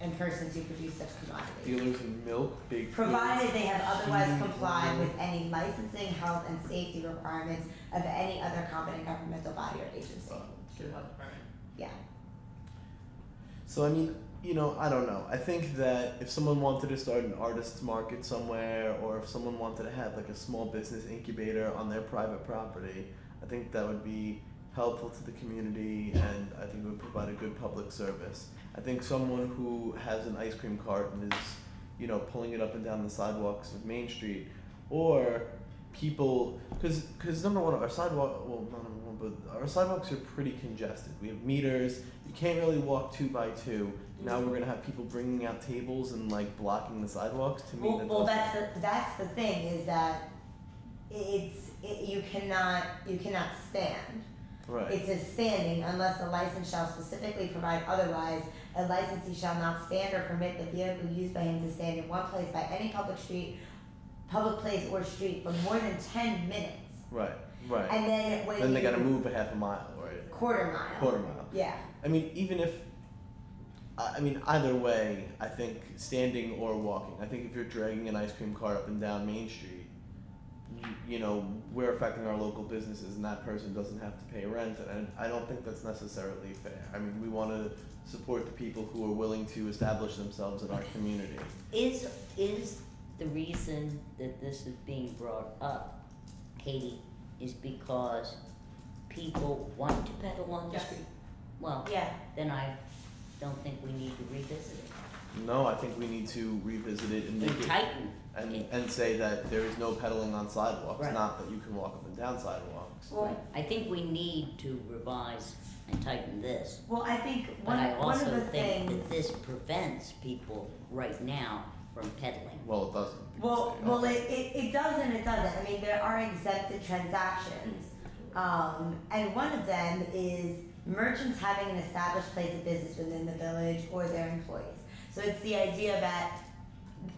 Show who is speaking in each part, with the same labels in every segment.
Speaker 1: and persons who produce such commodities.
Speaker 2: Dealers in milk, big.
Speaker 1: Provided they have otherwise
Speaker 2: Mm.
Speaker 1: complied with any licensing, health, and safety requirements of any other competent governmental body or agency.
Speaker 2: Yeah.
Speaker 1: Yeah.
Speaker 2: So I mean, you know, I don't know. I think that if someone wanted to start an artist's market somewhere, or if someone wanted to have like a small business incubator on their private property, I think that would be helpful to the community, and I think it would provide a good public service. I think someone who has an ice cream cart and is, you know, pulling it up and down the sidewalks of Main Street, or people, because because number one, our sidewalk, well, not number one, but our sidewalks are pretty congested. We have meters. You can't really walk two by two. Now we're gonna have people bringing out tables and like blocking the sidewalks. To me,
Speaker 1: Well,
Speaker 2: that
Speaker 1: well,
Speaker 2: doesn't-
Speaker 1: that's the, that's the thing is that it's, it, you cannot, you cannot stand.
Speaker 2: right.
Speaker 1: It says standing unless the license shall specifically provide otherwise. A licensee shall not stand or permit the vehicle used by him to stand in one place by any public street, public place or street for more than ten minutes.
Speaker 2: right, right,
Speaker 1: And then when
Speaker 2: Then they
Speaker 1: you-
Speaker 2: gotta move a half a mile, right?
Speaker 1: quarter mile.
Speaker 2: Quarter mile.
Speaker 1: Yeah.
Speaker 2: I mean, even if, I I mean, either way, I think standing or walking. I think if you're dragging an ice cream cart up and down Main Street, you, you know, we're affecting our local businesses, and that person doesn't have to pay rent, and I don't think that's necessarily fair. I mean, we want to support the people who are willing to establish themselves in our community.
Speaker 3: Is, is the reason that this is being brought up, Katie, is because people want to pedal on the
Speaker 1: Yes.
Speaker 3: street? Well,
Speaker 1: Yeah.
Speaker 3: then I don't think we need to revisit it.
Speaker 2: No, I think we need to revisit it and make
Speaker 3: We
Speaker 2: it
Speaker 3: tighten,
Speaker 2: and, and say that there is no pedaling on sidewalks,
Speaker 3: Right.
Speaker 2: not that you can walk up and down sidewalks.
Speaker 1: Well,
Speaker 3: I think we need to revise and tighten this.
Speaker 1: well, I think
Speaker 3: But
Speaker 1: one
Speaker 3: I
Speaker 1: one of
Speaker 3: also
Speaker 1: the
Speaker 3: think
Speaker 1: things.
Speaker 3: that this prevents people right now from peddling.
Speaker 2: Well, it doesn't. because
Speaker 1: Well,
Speaker 2: they
Speaker 1: well,
Speaker 2: don't.
Speaker 1: it, it, it does and it doesn't. I mean, there are exempted transactions. Um, and one of them is merchants having an established place of business within the village or their employees. So it's the idea that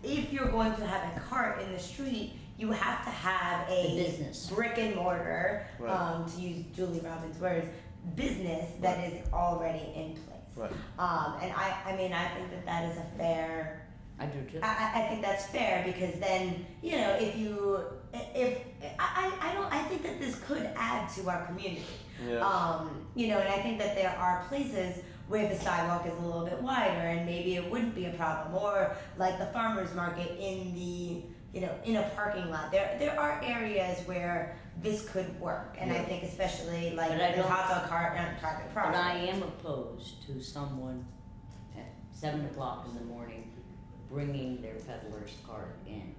Speaker 1: if you're going to have a cart in the street, you have to have
Speaker 3: The
Speaker 1: a
Speaker 3: business,
Speaker 1: brick and mortar,
Speaker 2: Right.
Speaker 1: um, to use Julie Robbins' words, business that is already in place.
Speaker 2: Right.
Speaker 1: Um, and I, I mean, I think that that is a fair
Speaker 3: I do too.
Speaker 1: I, I- I think that's fair because then you know if you if I, I I don't I think that this could add to our community.
Speaker 2: Yeah.
Speaker 1: Um, you know, and I think that there are places where the sidewalk is a little bit wider and maybe it wouldn't be a problem or like the farmers market in the you know in a parking lot. There there are areas where this could work and I
Speaker 2: Yeah.
Speaker 1: think especially like
Speaker 3: But I
Speaker 1: the
Speaker 3: don't-
Speaker 1: hot dog cart and private
Speaker 3: But I
Speaker 1: property.
Speaker 3: am opposed to someone at seven o'clock in the morning bringing their peddler's cart in,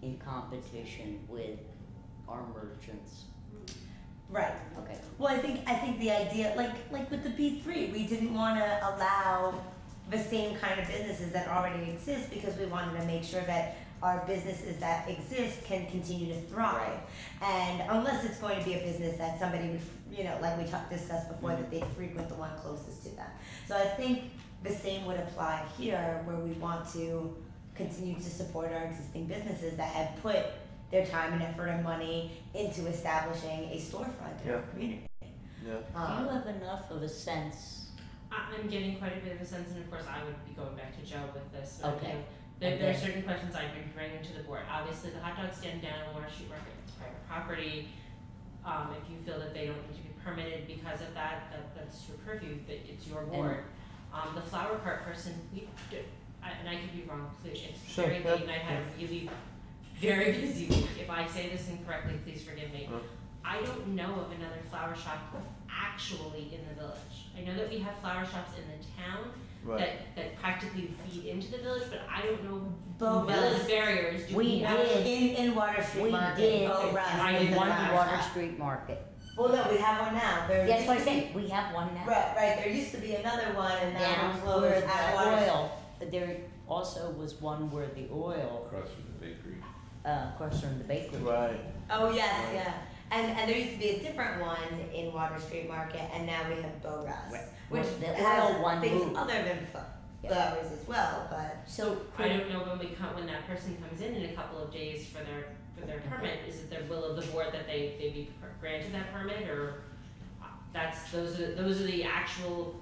Speaker 3: in competition with our merchants.
Speaker 1: Right.
Speaker 3: Okay,
Speaker 1: Well, I think I think the idea, like like with the B three, we didn't want to allow the same kind of businesses that already exist because we wanted to make sure that our businesses that exist can continue to thrive. And unless it's going to be a business that somebody would, you know, like we talked discussed before, that
Speaker 2: Mm-hmm.
Speaker 1: they frequent the one closest to them. So I think the same would apply here, where we want to continue to support our existing businesses that have put their time and effort and money into establishing a storefront in our
Speaker 2: Yeah.
Speaker 1: community.
Speaker 2: yeah.
Speaker 3: do you
Speaker 1: Um,
Speaker 3: have enough of a sense?
Speaker 4: I- I'm getting quite a bit of a sense, and of course, I would be going back to Joe with this. but, you
Speaker 3: Okay.
Speaker 4: know, There, there are
Speaker 3: Okay.
Speaker 4: certain questions I've been bringing to the board. Obviously, the hot dog stand down on Water Street Market is private property. Um, if you feel that they don't need to be permitted because of that, that, that's your purview, that it's your board. Um, the flower cart person, we, d- I- and I could be wrong, please, it's
Speaker 2: Sure,
Speaker 4: very
Speaker 2: yeah,
Speaker 4: late, and I had a really, very busy week. If I say this incorrectly, please forgive me.
Speaker 2: Mm.
Speaker 4: I don't know of another flower shop actually in the village. I know that we have flower shops in the town
Speaker 2: Right.
Speaker 4: that, that practically feed into the village, but I don't know
Speaker 1: Bo
Speaker 4: village
Speaker 1: Russ,
Speaker 4: barriers. Do
Speaker 3: We
Speaker 4: we have?
Speaker 3: did.
Speaker 1: in, in Water
Speaker 3: We
Speaker 1: Street Market, Oh,
Speaker 3: did.
Speaker 1: Bo Russ
Speaker 4: I
Speaker 1: is
Speaker 4: did
Speaker 1: a
Speaker 3: One
Speaker 1: flower
Speaker 3: Water
Speaker 1: shop.
Speaker 3: Street Market.
Speaker 1: Well, no, we have one now, there
Speaker 3: That's
Speaker 1: used
Speaker 3: what I
Speaker 1: to
Speaker 3: said, we have one
Speaker 1: be-
Speaker 3: now.
Speaker 1: Right, right, there used to be another one and that
Speaker 3: Down
Speaker 1: one
Speaker 3: where
Speaker 1: closed at
Speaker 3: the
Speaker 1: Water Street.
Speaker 3: oil, but there also was one where the oil,
Speaker 5: Across from the bakery.
Speaker 3: uh, across from the bakery.
Speaker 2: Right.
Speaker 1: Oh, yes, yeah. And, and there used to be a different one in Water Street Market, and now we have Bo Russ,
Speaker 3: Right.
Speaker 1: which
Speaker 3: The
Speaker 1: has
Speaker 3: oil one
Speaker 1: things
Speaker 3: moved.
Speaker 1: other than fl-
Speaker 3: Yeah.
Speaker 1: flowers as well, but
Speaker 3: So
Speaker 4: I
Speaker 3: could,
Speaker 4: don't know when we come, when that person comes in in a couple of days for their, for their permit, is it the will of the board that they, they be per- granted that permit or? uh, That's, those are, those are the actual